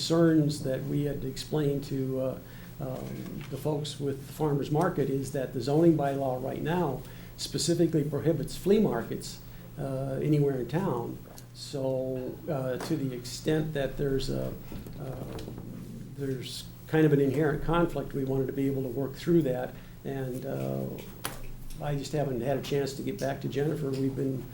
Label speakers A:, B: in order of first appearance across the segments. A: concerns that we had explained to uh, um, the folks with the farmer's market is that the zoning bylaw right now specifically prohibits flea markets uh, anywhere in town. So uh, to the extent that there's a, uh, there's kind of an inherent conflict, we wanted to be able to work through that. And uh, I just haven't had a chance to get back to Jennifer. We've been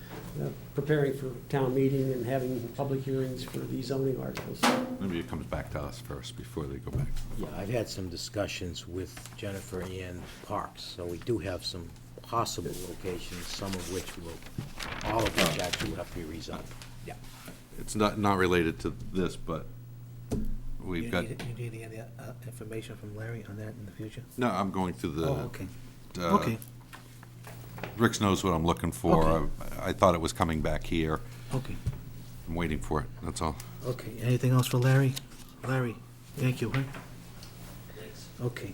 A: uh, preparing for town meeting and having public hearings for these zoning articles.
B: Maybe it comes back to us first before they go back.
C: Yeah, I've had some discussions with Jennifer and Parks, so we do have some possible locations, some of which will, all of which actually will have to be rezoned. Yeah.
B: It's not, not related to this, but
D: You
B: we've got,
D: need, you need any uh, information from Larry on that in the future?
B: no, I'm going through
D: Oh,
B: the,
D: okay,
B: uh,
D: okay,
B: Rick knows what I'm looking for.
D: Okay.
B: I I thought it was coming back here.
D: okay,
B: I'm waiting for it, that's all.
D: okay. Anything else for Larry? Larry, thank you, huh? Okay.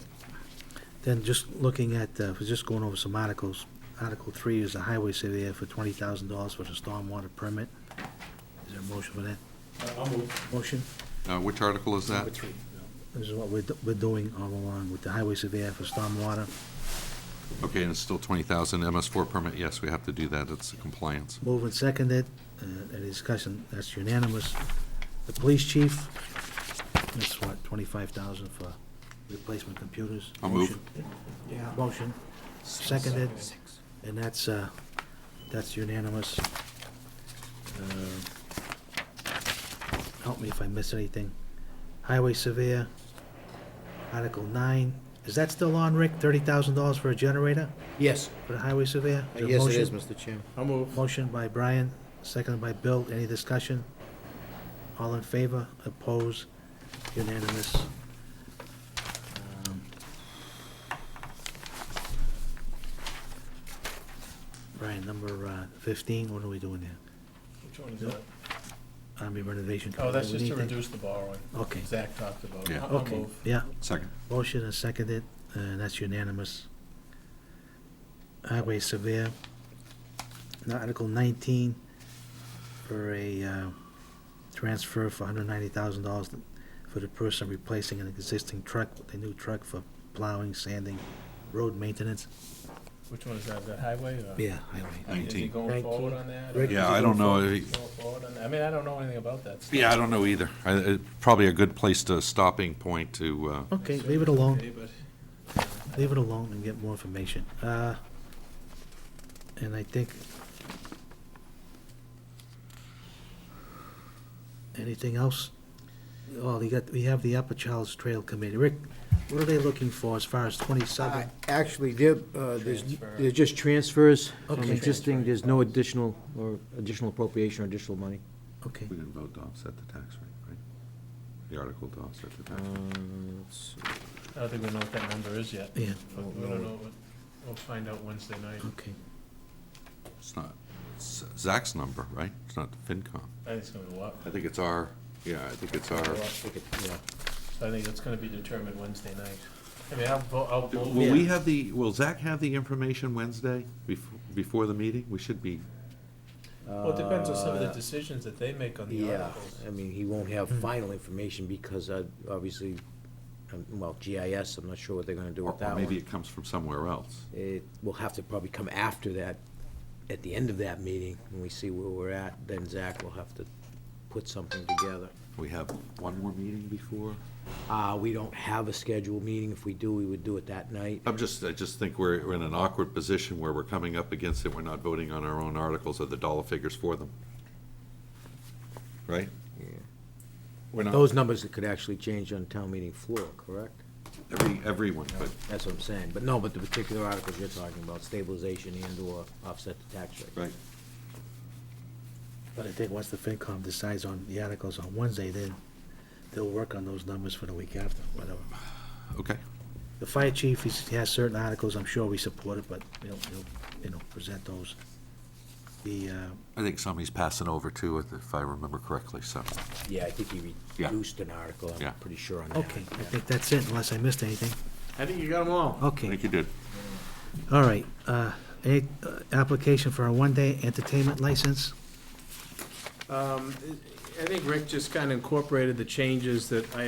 D: Then just looking at, uh, was just going over some articles. Article three is the highway surveyor for twenty thousand dollars for the stormwater permit. Is there a motion for that? Motion?
B: Uh, Which article is that?
D: This is what we're, do- we're doing all along with the highway surveyor for stormwater.
B: Okay, and it's still 20,000 MS4 permit, yes, we have to do that, it's a compliance.
D: Moved and seconded, uh, any discussion, that's unanimous. The police chief, that's what, twenty-five thousand for replacement computers?
B: I'll move.
D: Motion. Motion, seconded, and that's, uh, that's unanimous. Uh, Help me if I miss anything. Highway surveyor, Article nine, is that still on, Rick? Thirty thousand dollars for a generator
C: Yes,
D: for the highway surveyor?
C: uh,
D: Is there a
C: yes it
D: motion?
C: is, Mr. Chairman.
E: I'll move.
D: Motion by Brian, seconded by Bill. Any discussion? All in favor? Opposed? Unanimous? Um, Brian, number uh, 15, what are we doing there?
E: Which one is that?
D: Army renovation.
E: Oh, that's
D: Committee,
E: just to
D: we need
E: reduce the borrowing.
D: Okay.
E: Zach talked about it.
B: Yeah.
E: I'll I'll
D: Okay,
E: move.
D: yeah.
B: Second.
D: Motion is seconded, and that's unanimous. Highway surveyor. Now Article nineteen for a, uh, transfer for hundred ninety thousand dollars for the person replacing an existing truck with a new truck for plowing, sanding, road maintenance.
E: Which one is that, that highway or?
D: Yeah, highway.
E: Is he
B: 19.
E: going forward
D: 19.
E: on that?
D: Rick,
B: Yeah, I don't know,
E: Going
B: I-
E: forward on that? I mean, I don't know anything about that. stuff.
B: yeah, I don't know either. I- it- Probably a good place to, stopping point to, uh,
D: Okay, leave it alone.
E: Okay, but-
D: Leave it alone and get more information. Uh, And I think... Anything else? Oh, you got, we have the Upper Charles Trail Committee. Rick, what are they looking for as far as
C: Uh,
D: 27?
C: Actually, there, uh, there's,
E: Transfer.
C: they're just transfers from
D: Okay.
C: existing, there's no additional, or additional appropriation or additional money.
D: Okay,
B: we didn't vote to offset the tax rate, right? The article to offset the
C: Uh,
B: tax.
C: let's see.
E: I don't think we know what that number is yet.
D: yeah,
E: But We don't know, what- we'll find out Wednesday night.
D: okay.
B: It's not it's Zach's number, right? It's not the FinCom.
E: I think it's gonna go up.
B: I think it's our, yeah, I think it's our.
E: Go up.
C: Take it, yeah.
E: So I think it's gonna be determined Wednesday night. I mean, I'll vote, I'll
B: Will
E: vote.
B: we have the, will Zach have the information Wednesday before, before the meeting? We should be,
E: Well, it depends on some of the
C: Uh,
E: decisions that they make on the
C: Yeah,
E: articles.
C: I mean, he won't have
B: Hmm.
C: final information because uh, obviously, um, well, GIS, I'm not sure what they're gonna do
B: or
C: with
B: or
C: that
B: maybe
C: one.
B: it comes from somewhere else.
C: It will have to probably come after that, at the end of that meeting, when we see where we're at, then Zach will have to put something together.
B: We have one more meeting before?
C: Uh, we don't have a scheduled meeting, if we do, we would do it that night.
B: I'm just, I just think we're, we're in an awkward position where we're coming up against it, we're not voting on our own articles or the dollar figures for them. Right? We're not,
C: Those numbers could actually change on town meeting floor, correct?
B: every, everyone, but
C: That's what I'm saying, but no, but the particular articles you're talking about, stabilization and/or offset the tax rate.
B: Right.
D: But I think once the FinCom decides on the articles on Wednesday, then they'll work on those numbers for the week after, whatever.
B: Okay,
D: The fire chief, he's- he has certain articles, I'm sure we support it, but he'll, he'll, you know, present those. The, uh,
B: I think somebody's passing over too, if I remember correctly, so.
C: Yeah, I think he
B: Yeah.
C: reduced an article,
B: Yeah.
C: I'm pretty sure on that.
D: Okay, I think that's it, unless I missed anything.
E: I think you got them all.
B: I
D: Okay,
B: think you did.
D: all right. Uh, a- uh, Application for a one-day entertainment license?
E: Um, I think Rick just kind of incorporated the changes that I had